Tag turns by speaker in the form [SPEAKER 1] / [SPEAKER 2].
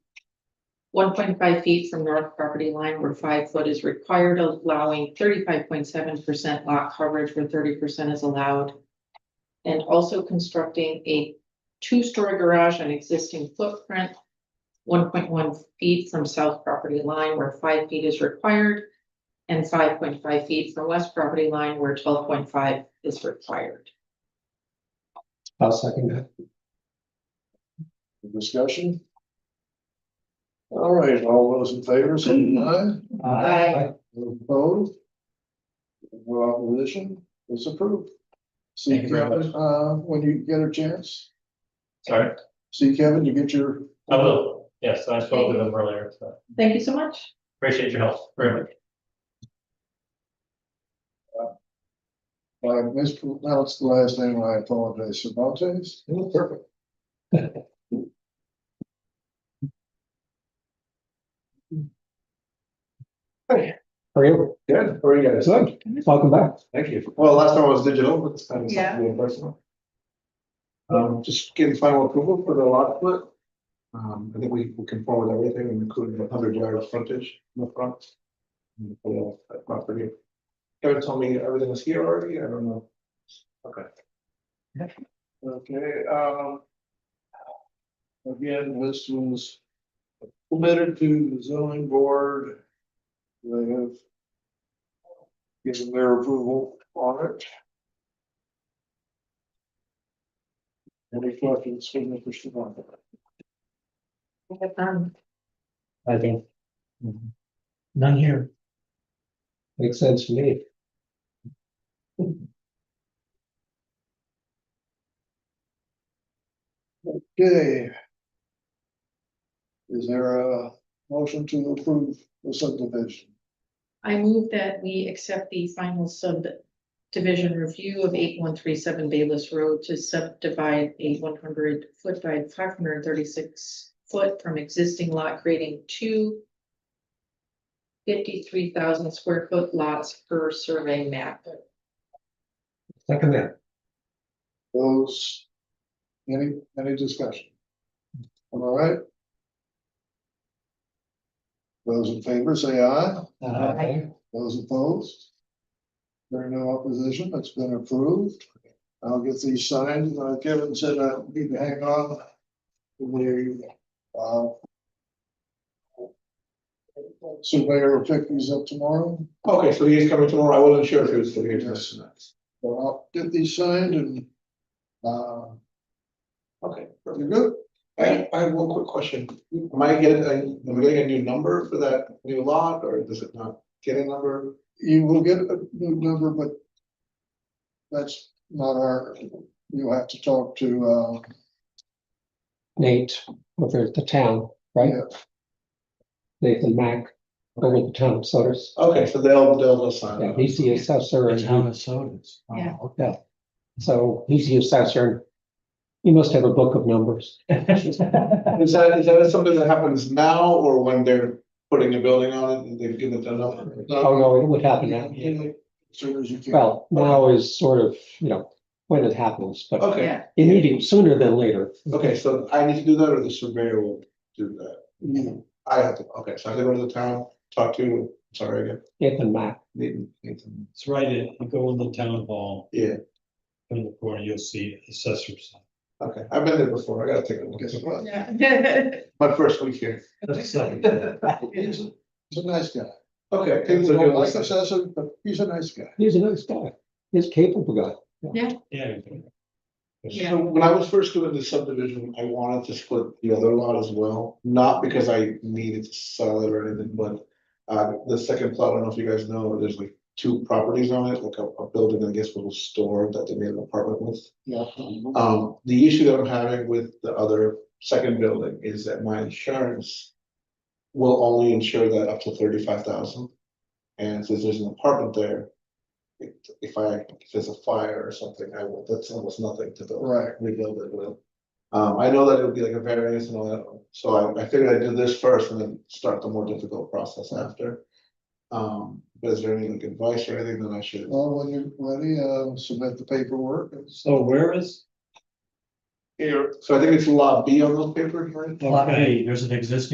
[SPEAKER 1] One point five feet from north property line where five foot is required, allowing thirty-five point seven percent lot coverage where thirty percent is allowed. And also constructing a two-story garage on existing footprint. One point one feet from south property line where five feet is required. And five point five feet from west property line where twelve point five is required.
[SPEAKER 2] I'll second that.
[SPEAKER 3] Discussion? All right, all those in favor, say aye.
[SPEAKER 1] Aye.
[SPEAKER 3] Those Opposed? Well, opposition is approved. See
[SPEAKER 4] Thank you very
[SPEAKER 3] Kevin, uh, when you get a chance,
[SPEAKER 4] Sorry,
[SPEAKER 3] see Kevin, you get your.
[SPEAKER 4] I will. Yes, I spoke with them earlier, so
[SPEAKER 1] Thank you so much.
[SPEAKER 4] appreciate your help very much.
[SPEAKER 3] I mispronounced the last name, I apologize, Cervantes.
[SPEAKER 2] Perfect. Hey, how are you?
[SPEAKER 5] Good, how are you guys?
[SPEAKER 2] Good. Welcome back.
[SPEAKER 5] Thank you. Well, last time I was digital, but this time it's
[SPEAKER 1] Yeah.
[SPEAKER 5] something personal. Um, just getting final approval for the lot split. Um, I think we we conform with everything, including the hundred yard of frontage in the front. And for that Property. Kevin told me everything was here already, I don't know. Okay.
[SPEAKER 3] Okay, um. Again, this was submitted to the zoning board. They have. Given their approval on it. Any questions, Mr. Devon?
[SPEAKER 1] Have fun.
[SPEAKER 4] I think.
[SPEAKER 2] Mm-hmm. None here. Makes sense to me.
[SPEAKER 3] Okay. Is there a motion to approve the subdivision?
[SPEAKER 1] I move that we accept the final subdivision review of eight one three seven Bayless Road to subdivide a one hundred foot by five hundred and thirty-six foot from existing lot creating two fifty-three thousand square foot lots per survey map.
[SPEAKER 2] Second that.
[SPEAKER 3] Those, any, any discussion? Am I right? Those in favor say aye,
[SPEAKER 2] Aye.
[SPEAKER 3] those opposed? There are no opposition, it's been approved. I'll get these signed, Uh, Kevin said I need to hang on. We, uh. Surveyor will pick these up tomorrow,
[SPEAKER 5] Okay, so he is coming tomorrow, I wasn't sure if he was still here.
[SPEAKER 3] Yes. so I'll get these signed and, uh,
[SPEAKER 5] Okay,
[SPEAKER 3] you're good?
[SPEAKER 5] I, I have one quick question. Am I getting, am I getting a new number for that new lot, or does it not get a number?
[SPEAKER 3] You will get a new number, but. That's not our, you'll have to talk to, uh,
[SPEAKER 2] Nate over at the town, right?
[SPEAKER 3] Yeah.
[SPEAKER 2] Nathan Mack over at the town of Sutter's.
[SPEAKER 5] Okay, so they'll, they'll assign.
[SPEAKER 2] Yeah,
[SPEAKER 5] it.
[SPEAKER 2] he's the assessor. and he-
[SPEAKER 6] of Sodas.
[SPEAKER 1] Oh, Yeah.
[SPEAKER 2] Yeah, so he's the assessor. He must have a book of numbers. Oh,
[SPEAKER 5] Is that, is that something that happens now or when they're putting a building on it and they've given it a number?
[SPEAKER 2] Oh, no, it would happen now.
[SPEAKER 3] as soon as you can.
[SPEAKER 2] Well, now is sort of, you know, when it happens, but
[SPEAKER 5] Okay,
[SPEAKER 2] you need it sooner than later.
[SPEAKER 5] okay, so I need to do that or the surveyor will do that?
[SPEAKER 3] You-
[SPEAKER 5] I have to, okay, so I have to go to the town, talk to, sorry again.
[SPEAKER 2] Nathan Mack,
[SPEAKER 5] Nathan- Nathan.
[SPEAKER 6] It's right, in- you go in the town hall,
[SPEAKER 5] Yeah,
[SPEAKER 6] in the corner, you'll see assessors.
[SPEAKER 5] okay, I've been there before, I gotta take a look.
[SPEAKER 3] Guess what?
[SPEAKER 1] Yeah.
[SPEAKER 5] My first week here.
[SPEAKER 3] He's a he's a nice guy.
[SPEAKER 5] Okay. things
[SPEAKER 3] People
[SPEAKER 5] are
[SPEAKER 3] don't
[SPEAKER 5] good.
[SPEAKER 3] like assessor, but he's a nice guy.
[SPEAKER 2] he's a nice guy. He's a capable guy.
[SPEAKER 6] Yeah.
[SPEAKER 1] Yeah.
[SPEAKER 5] So when I was first doing the subdivision, I wanted to split the other lot as well, not because I needed to sell it or anything, but. Uh, the second plot, I don't know if you guys know, there's like two properties on it, like a, a building, I guess, little store that they made an apartment with.
[SPEAKER 3] Yeah.
[SPEAKER 5] Um, the issue that I'm having with the other second building is that my insurance. Will only insure that up to thirty-five thousand. And since there's an apartment there. If, if I, if there's a fire or something, I will, that's almost nothing to build,
[SPEAKER 3] Right.
[SPEAKER 5] rebuild it with. Um, I know that it would be like a variance and all that, so I, I figured I'd do this first and then start the more difficult process after. Um, but is there any like advice or anything that I should?
[SPEAKER 3] Well, when you're ready, uh, submit the paperwork.
[SPEAKER 6] So Oh, where is,
[SPEAKER 5] Here, so I think it's lot B on those papers, right?
[SPEAKER 6] okay, there's an existing